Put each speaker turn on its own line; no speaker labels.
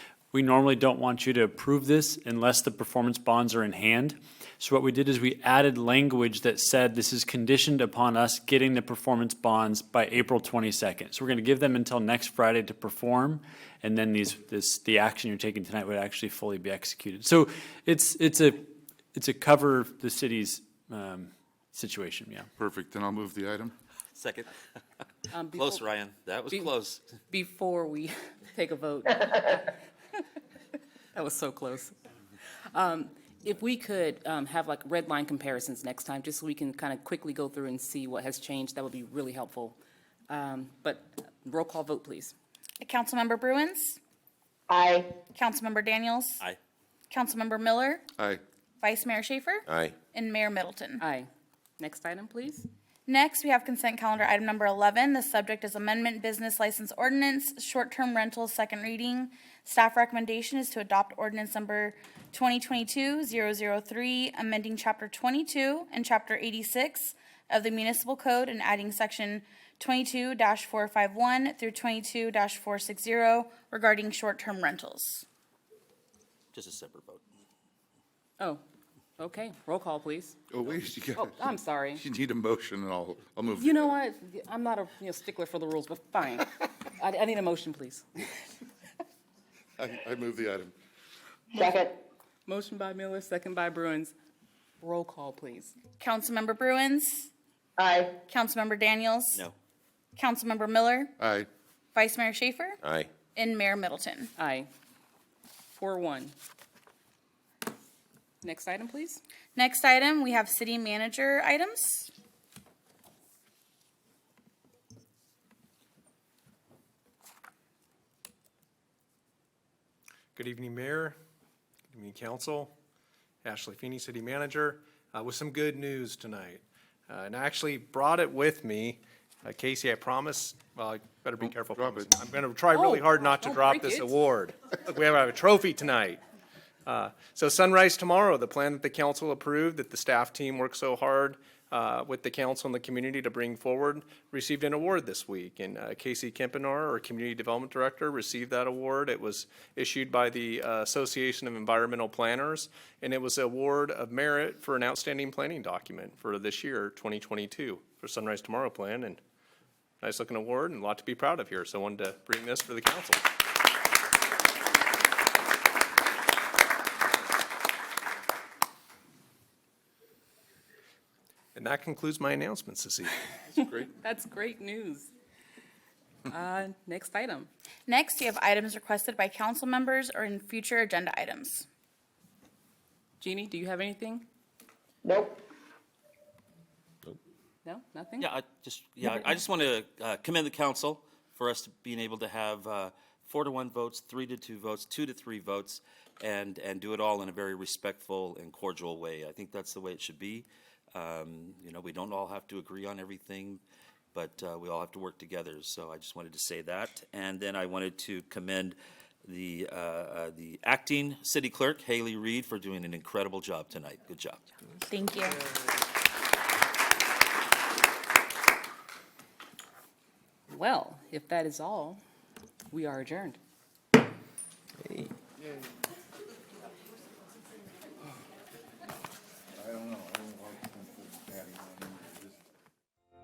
We normally don't want you to approve this unless the performance bonds are in hand. So what we did is we added language that said this is conditioned upon us getting the performance bonds by April 22nd. So we're going to give them until next Friday to perform, and then these, this, the action you're taking tonight would actually fully be executed. So it's, it's a, it's a cover the city's um, situation, yeah.
Perfect, then I'll move the item.
Second.
Um, before-
Close, Ryan. That was
Be-
close.
Before we take a vote. That was so close. Um, If we could um, have like red line comparisons next time, just so we can kind of quickly go through and see what has changed, that would be really helpful. Um, But roll call vote, please.
Councilmember Bruins?
Aye.
Councilmember Daniels?
Aye.
Councilmember Miller?
Aye.
Vice Mayor Schaefer?
Aye.
And Mayor Middleton?
Aye. Next item, please.
Next, we have consent calendar item number 11. The subject is amendment business license ordinance, short-term rentals, second reading. Staff recommendation is to adopt ordinance number 2022-003, amending Chapter 22 and Chapter 86 of the Municipal Code and adding Section 22-451 through 22-460 regarding short-term rentals.
Just a separate vote.
Oh, okay, roll call, please.
Oh, wait, you
Oh,
got,
I'm sorry.
you need a motion, and I'll, I'll move.
You know what? I'm not a you know, stickler for the rules, but fine. I I need a motion, please.
I, I move the item.
Second.
Motion by Miller, second by Bruins. Roll call, please.
Councilmember Bruins?
Aye.
Councilmember Daniels?
No.
Councilmember Miller?
Aye,
Vice Mayor Schaefer?
Aye.
And Mayor Middleton.
Aye. Four one. Next item, please.
Next item, we have city manager items.
Good evening, Mayor. Good evening, Council. Ashley Feeney, City Manager, uh, with some good news tonight. Uh, And I actually brought it with me. Uh, Casey, I promise, well, I better be careful.
drop
promising. I'm going to try really
Oh,
hard not to
don't
drop
break
this
it.
award. Look, We have a trophy tonight. Uh, So sunrise tomorrow, the plan that the council approved, that the staff team worked so hard uh, with the council and the community to bring forward, received an award this week. And uh, Casey Kempinar, our Community Development Director, received that award. It was issued by the uh, Association of Environmental Planners, and it was an award of merit for an outstanding planning document for this year, 2022, for Sunrise Tomorrow Plan. And nice-looking award and a lot to be proud of here. So I wanted to bring this for the council. And that concludes my announcements this evening.
great.
That's great news. Uh, next item.
Next, you have items requested by council members or in future agenda items.
Jeannie, do you have anything?
Nope.
No, nothing?
Yeah, I just, yeah, I just want to uh, commend the council for us being able to have uh, four to one votes, three to two votes, two to three votes, and, and do it all in a very respectful and cordial way. I think that's the way it should be. Um, You know, we don't all have to agree on everything, but uh, we all have to work together, so I just wanted to say that. And then I wanted to commend the, uh, uh, the acting city clerk, Haley Reed, for doing an incredible job tonight. Good job.
Thank you.
Well, if that is all, we are adjourned.